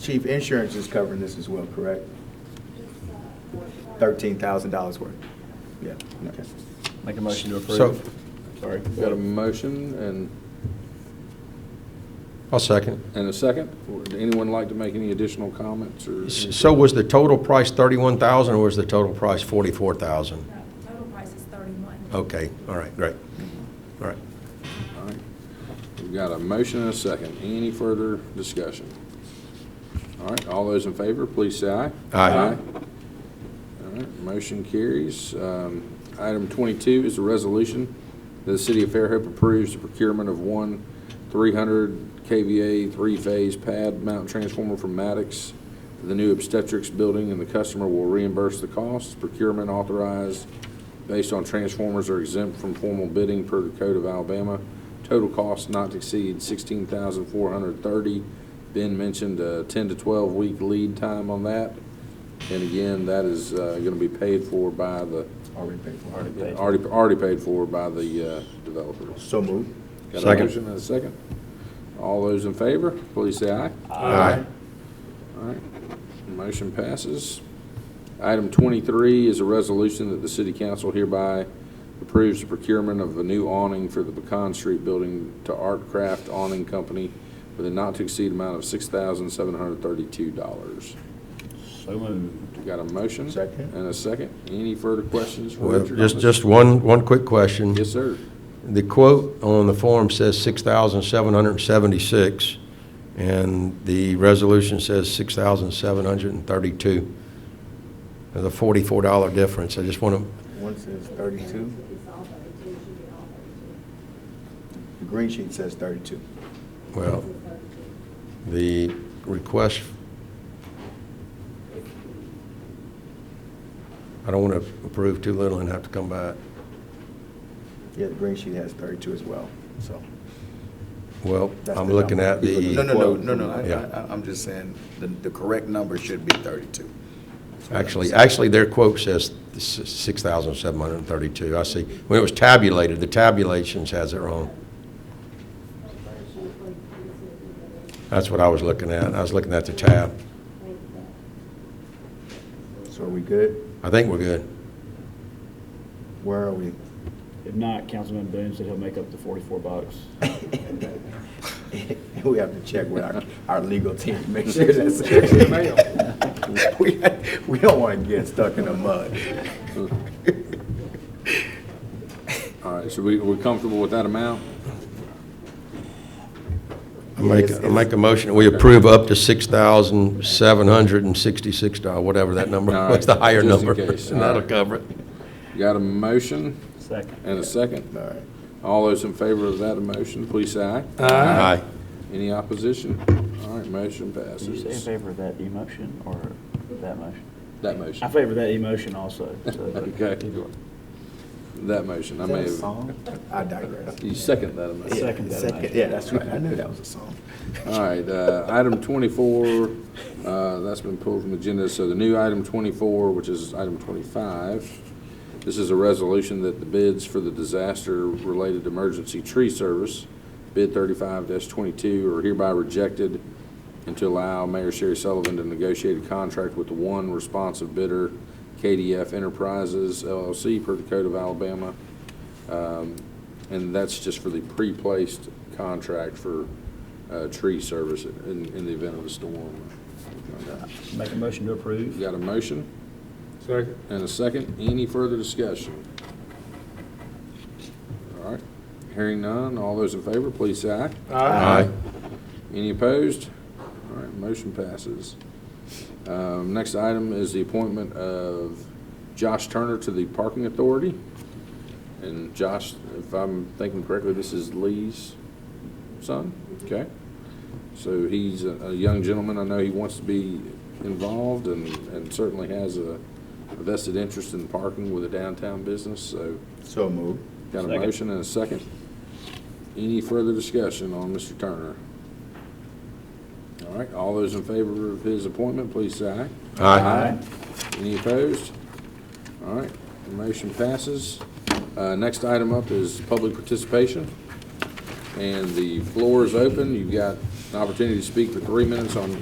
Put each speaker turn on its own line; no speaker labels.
Chief, insurance is covering this as well, correct? Thirteen thousand dollars worth. Yeah, okay.
Make a motion to
So-
approve. Sorry.
We've Got a motion and,
I'll second.
and a second. Would anyone like to make any additional comments or?
S- So was the total price 31,000 or was the total price 44,000?
No, Total price is thirty-one.
Okay, all right, great. All right.
All right. We've got a motion and a second. Any further discussion? All right, all those in favor, please say aye.
Aye.
All right, motion carries. Um, Item 22 is a resolution that the City of Fairhope approves the procurement of one 300 KVA three-phase pad mount transformer from Maddox to the new obstetrics building, and the customer will reimburse the costs. Procurement authorized based on transformers are exempt from formal bidding per the Code of Alabama. Total cost not to exceed 16430 Ben mentioned a 10 to 12-week lead time on that. And again, that is going to be paid for by the,
Already paid for.
Already paid.
already, already paid for by the uh, developers.
So moved.
Got a
Second.
motion and a second? All those in favor, please say aye.
Aye.
All right, motion passes. Item 23 is a resolution that the city council hereby approves the procurement of a new awning for the Pecan Street building to Art Craft Awning Company with a not-to-exceed amount of $6,732.
So moved.
Got a motion?
Second.
And a second. Any further questions? for
Well,
Richard on
just,
this?
just one, one quick question.
Yes, sir.
The quote on the form says 6,776, and the resolution says 6,732. There's a $44 difference. I just want to,
One says thirty-two. The green sheet says thirty-two.
well, the request, I don't want to approve too little and have to come back.
Yeah, the green sheet has thirty-two as well, so.
Well,
That's
I'm
the
looking
number.
at
No,
the,
no, no, no, no,
Yeah.
I- I- I'm just saying, the, the correct number should be 32.
actually, actually, their quote says 6,732. I see. When it was tabulated, the tabulations has it wrong. That's what I was looking at. I was looking at the tab.
So are we good?
I think we're good.
Where are we?
If not, Councilman Boone said he'll make up the 44 bucks.
We have to check with our, our legal team, to make sure that's. We, we don't want to get stuck in the mud.
All right, so we, we're comfortable with that amount?
I make,
Yes,
I make a motion, we approve up to $6,766, whatever that number,
All
what's the
right,
higher
just in
number?
case.
And
All
that'll
right.
cover it.
Got a motion
Second.
and a second.
All right.
All those in favor of that motion, please say aye.
Aye.
Any opposition? All right, motion
Did you say in
passes.
favor of that emotion or that motion?
That
I
motion,
favor that emotion also. so-
Okay.
Either way.
that motion, I
Is that
may
a
have,
song? I digress.
you second that
Yeah,
amendment.
Second that
second-
motion.
Yeah, that's right. I knew that was a song.
All right, uh, item 24, uh, that's been pulled from the agenda, so the new item 24, which is item 25, this is a resolution that the bids for the disaster-related emergency tree service, bid 35-22, are hereby rejected and to allow Mayor Sherry Sullivan to negotiate a contract with the one responsive bidder, KDF Enterprises LLC, per the Code of Alabama. Um, And that's just for the pre-placed contract for uh, tree service in, in the event of a storm.
Make a motion to
You
approve.
Got a motion? Second. And a second. Any further discussion? All right. Hearing none. All those in favor, please say aye.
Aye.
Any opposed? All right, motion passes. Um, Next item is the appointment of Josh Turner to the Parking Authority. And Josh, if I'm thinking correctly, this is Lee's son, okay? So he's a a young gentleman, I know he wants to be involved and and certainly has a vested interest in parking with a downtown business, so
So moved.
got a
Second.
motion and a second. Any further discussion on Mr. Turner? All right, all those in favor of his appointment, please say aye.
Aye.
Any opposed? All right, the motion passes. Uh, Next item up is public participation, and the floor is open. You've got an opportunity to speak for three minutes on